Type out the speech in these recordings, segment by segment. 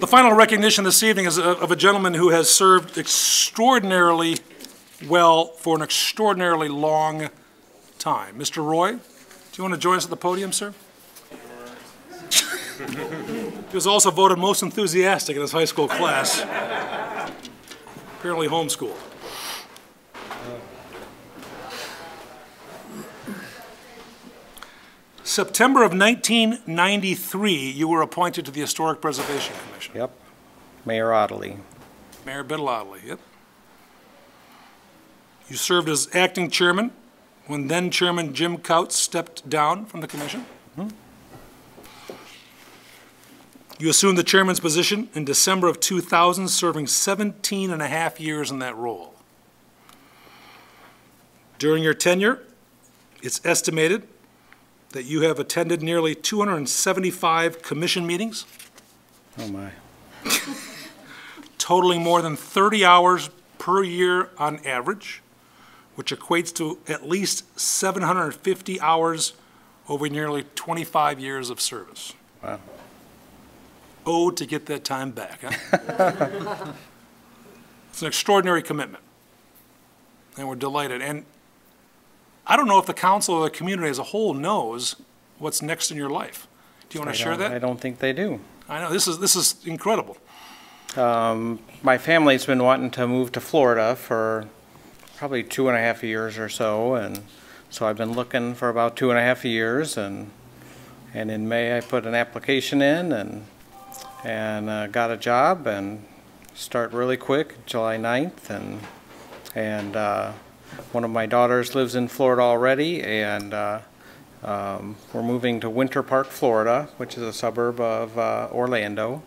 The final recognition this evening is of of a gentleman who has served extraordinarily well for an extraordinarily long time. Mr. Roy, do you want to join us at the podium, sir? He was also voted most enthusiastic in his high school class. Apparently homeschooled. September of 1993, you were appointed to the Historic Preservation Commission. Yep. Mayor Ottley. Mayor Bitalotti, yep. You served as acting chairman when then-chairman Jim Couts stepped down from the commission. Mm-hmm. You assumed the chairman's position in December of 2000, serving 17 and a half years in that role. During your tenure, it's estimated that you have attended nearly 275 commission meetings, Oh, my. totaling more than 30 hours per year on average, which equates to at least 750 hours over nearly 25 years of service. Wow. Oh, to get that time back, huh? It's an extraordinary commitment, and we're delighted. And I don't know if the council or the community as a whole knows what's next in your life. Do you want I to share don't- I that? don't think they do. I know, this is, this is incredible. My family's been wanting to move to Florida for probably two and a half years or so, and so I've been looking for about two and a half years, and, and in May, I put an application in and, and uh, got a job and start really quick, July 9th, and, and uh, one of my daughters lives in Florida already, and uh, um, we're moving to Winter Park, Florida, which is a suburb of uh, Orlando.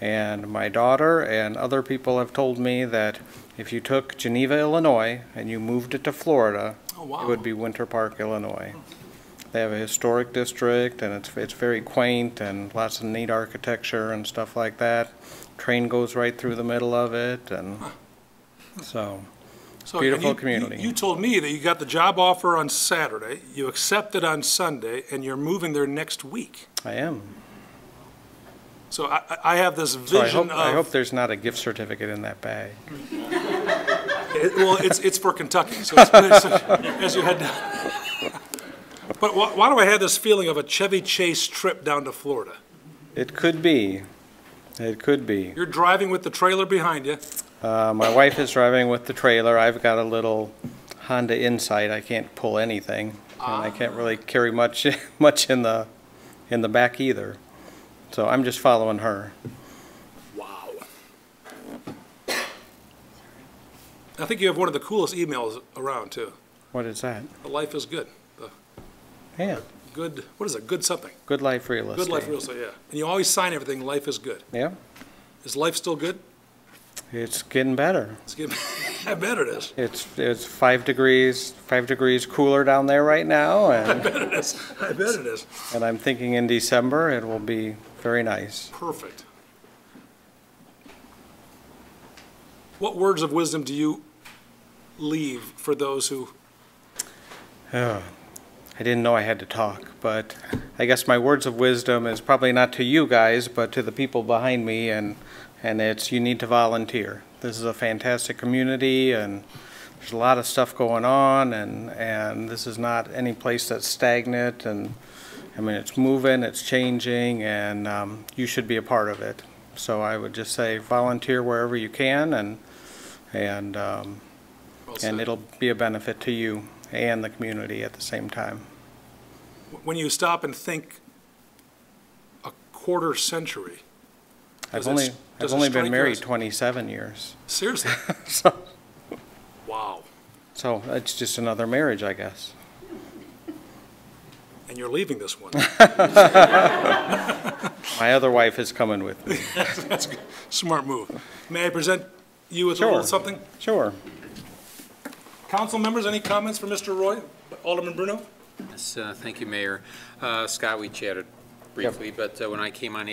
And my daughter and other people have told me that if you took Geneva, Illinois, and you moved it to Florida, Oh, wow. it would be Winter Park, Illinois. They have a historic district, and it's, it's very quaint and lots of neat architecture and stuff like that. Train goes right through the middle of it, and so, So, and you- Beautiful you- community. You told me that you got the job offer on Saturday, you accepted on Sunday, and you're moving there next week. I am. So I, I- I have this So I vision hope, of. I hope there's not a gift certificate in that bag. It- Well, it's, it's for Kentucky, so it's, it's- as you head down. But why, why do I have this feeling of a Chevy Chase trip down to Florida? It could be. It could be. You're driving with the trailer behind you, Uh, my wife is driving with the trailer. I've got a little Honda Insight. I can't pull anything, and I can't really Ah. carry much much in the in the back either. So I'm just following her. wow. I think you have one of the coolest emails around, too. What is that? The Life is good, the Yeah, good, what is it, good something? Good Life Real Estate. Good life real estate, yeah. And you always sign everything, life is good. Yeah, Is life still good? it's getting better. It's good. I bet it is, It's it's five degrees five degrees cooler down there right now, and I bet it is, I bet it is. and I'm thinking in December it will be very nice. Perfect. What words of wisdom do you leave for those who, Oh, I didn't know I had to talk, but I guess my words of wisdom is probably not to you guys, but to the people behind me, and, and it's you need to volunteer. This is a fantastic community, and there's a lot of stuff going on, and, and this is not any place that's stagnant, and, I mean, it's moving, it's changing, and um, you should be a part of it. So I would just say volunteer wherever you can, and, and um, well and said. it'll be a benefit to you and the community at the same time. when you stop and think a quarter century? Does I've it only, s- does I've it only strike you been married as- 27 years, Seriously? so, Wow. so it's just another marriage, I guess. And you're leaving this one. My other wife is coming with me. That's a good- smart move. May I present you with a little Sure. something? Sure. Council members, any comments for Mr. Roy? Alderman Bruno? Yes, uh, thank you, Mayor. Uh, Scott, we chatted briefly, but uh, when I came on